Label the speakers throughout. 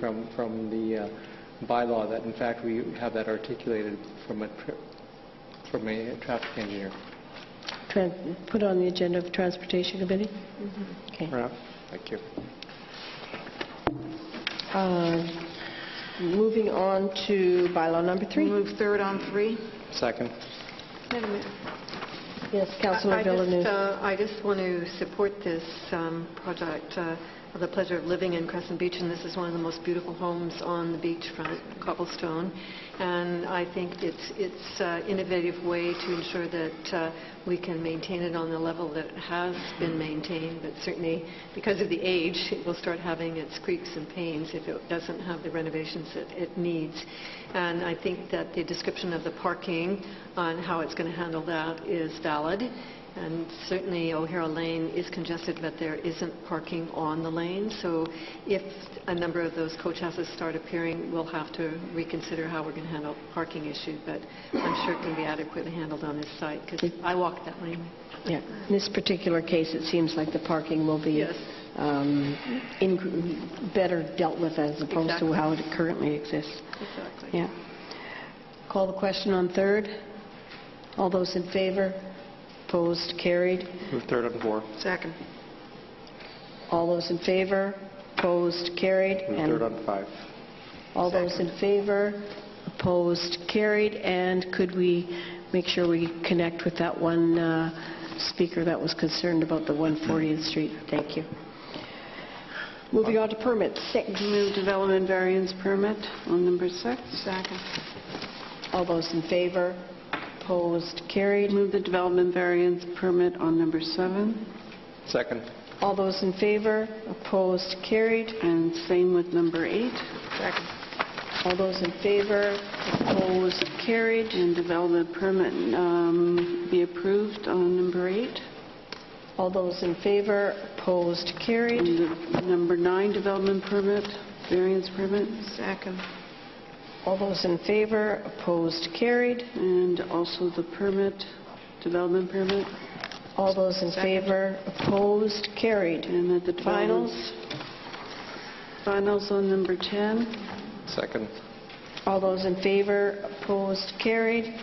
Speaker 1: from, from the uh, bylaw that, in fact, we have that articulated from a, tr- from a traffic engineer.
Speaker 2: Tran- Put on the agenda of Transportation Committee?
Speaker 3: Mm-hmm.
Speaker 2: Okay.
Speaker 1: Right. Thank you.
Speaker 2: Uh, Moving on to bylaw number three.
Speaker 3: Move third on three.
Speaker 1: Second.
Speaker 2: Yes, Councilor
Speaker 3: I- I just,
Speaker 2: Villeneuve.
Speaker 3: uh, I just want to support this um, project uh, of the pleasure of living in Crescent Beach, and this is one of the most beautiful homes on the beachfront, cobblestone. And I think it's it's uh, innovative way to ensure that uh, we can maintain it on the level that it has been maintained, but certainly because of the age, it will start having its creaks and pains if it doesn't have the renovations that it needs. And I think that the description of the parking on how it's going to handle that is valid. And certainly O'Hara Lane is congested, but there isn't parking on the lane. So if a number of those coach houses start appearing, we'll have to reconsider how we're going to handle parking issue. But I'm sure it can be adequately handled on this site because I walk that lane.
Speaker 2: Yeah. In this particular case, it seems like the parking will be
Speaker 3: Yes.
Speaker 2: um, in- better dealt with as opposed to
Speaker 3: Exactly.
Speaker 2: how it currently exists.
Speaker 3: Exactly.
Speaker 2: Yeah. Call the question on third. All those in favor? Opposed? Carried.
Speaker 1: Move third on four.
Speaker 3: Second.
Speaker 2: All those in favor? Opposed? Carried.
Speaker 1: Move
Speaker 2: And
Speaker 1: third on five.
Speaker 2: All those in favor, opposed, carried, and could we make sure we connect with that one uh, speaker that was concerned about the 140th Street? Thank you. Moving on to permit six.
Speaker 4: Move development variance permit on number six. Second.
Speaker 2: All those in favor, opposed, carried.
Speaker 4: Move the development variance permit on number seven,
Speaker 1: Second.
Speaker 2: All those in favor, opposed, carried.
Speaker 4: and same with number eight.
Speaker 2: All those in favor, opposed, carried.
Speaker 4: And development permit um, be approved on number eight.
Speaker 2: All those in favor, opposed, carried.
Speaker 4: And the number nine, development permit, variance permit,
Speaker 3: Second.
Speaker 2: All those in favor, opposed, carried.
Speaker 4: and also the permit, development permit,
Speaker 2: All those in favor, opposed, carried.
Speaker 4: and that the development-
Speaker 2: Finals,
Speaker 4: Finals on number 10.
Speaker 1: Second.
Speaker 2: all those in favor, opposed, carried.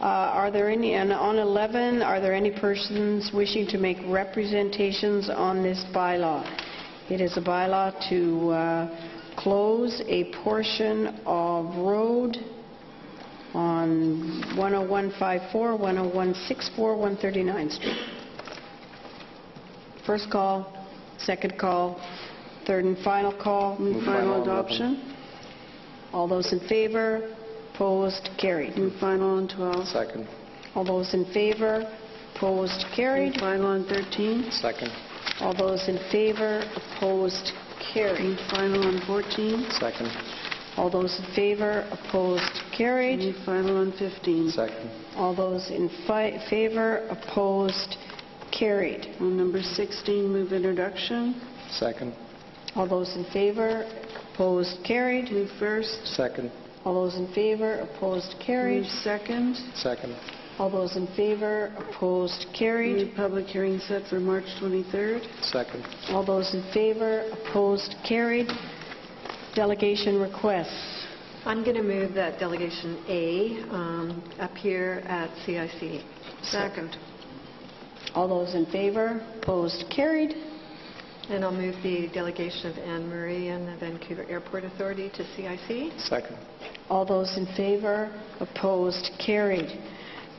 Speaker 2: Uh, Are there any, and on 11, are there any persons wishing to make representations on this bylaw? It is a bylaw to uh, close a portion of road on 10154, 10164, 139 Street. First call, second call, third and final call.
Speaker 4: Move
Speaker 1: final
Speaker 4: final
Speaker 1: on 11.
Speaker 4: adoption.
Speaker 2: All those in favor, opposed, carried.
Speaker 4: Move final on 12.
Speaker 1: Second.
Speaker 2: All those in favor, opposed, carried.
Speaker 4: Move final on 13.
Speaker 1: Second.
Speaker 2: All those in favor, opposed, carried.
Speaker 4: Move final on 14.
Speaker 1: Second.
Speaker 2: All those in favor, opposed, carried.
Speaker 4: Move final on 15.
Speaker 1: Second.
Speaker 2: All those in fi- favor, opposed, carried.
Speaker 4: On number 16, move introduction.
Speaker 1: Second.
Speaker 2: All those in favor, opposed, carried.
Speaker 4: Move first.
Speaker 1: Second.
Speaker 2: All those in favor, opposed,
Speaker 4: Move
Speaker 2: carried.
Speaker 4: second.
Speaker 1: Second.
Speaker 2: All those in favor, opposed,
Speaker 4: Move
Speaker 2: carried.
Speaker 4: public hearing set for March 23rd.
Speaker 1: Second.
Speaker 2: All those in favor, opposed, carried. Delegation requests.
Speaker 3: I'm going to move that delegation A um, up here at CIC. Second.
Speaker 2: All those in favor, opposed, carried.
Speaker 3: And I'll move the delegation of Anne Marie and the Vancouver Airport Authority to CIC.
Speaker 1: Second.
Speaker 2: All those in favor, opposed, carried.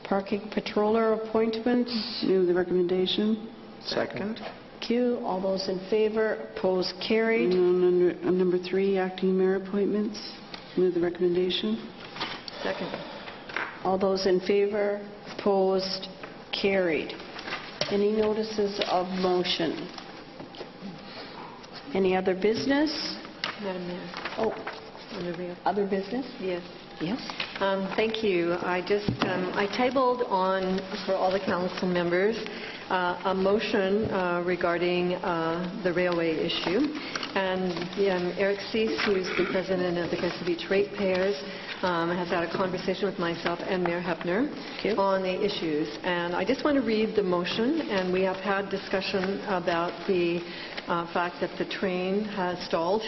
Speaker 2: Parking patroller appointments,
Speaker 4: Move the recommendation.
Speaker 1: Second.
Speaker 2: Q. All those in favor, opposed,
Speaker 4: And
Speaker 2: carried.
Speaker 4: on under- on number three, acting mayor appointments. Move the recommendation.
Speaker 3: Second.
Speaker 2: All those in favor, opposed, carried. Any notices of motion? Any other business?
Speaker 3: Madam Mayor,
Speaker 2: Oh,
Speaker 3: on the real-
Speaker 2: other business?
Speaker 3: Yes.
Speaker 2: Yes.
Speaker 3: Um, Thank you. I just, um, I tabled on, for all the council members, uh, a motion uh, regarding uh, the railway issue. And um, Eric Cease, who's the president of the Crescent Beach Ratepayers, um, has had a conversation with myself and Mayor Hepner
Speaker 2: you.
Speaker 3: on the issues. And I just want to read the motion, and we have had discussion about the uh, fact that the train has stalled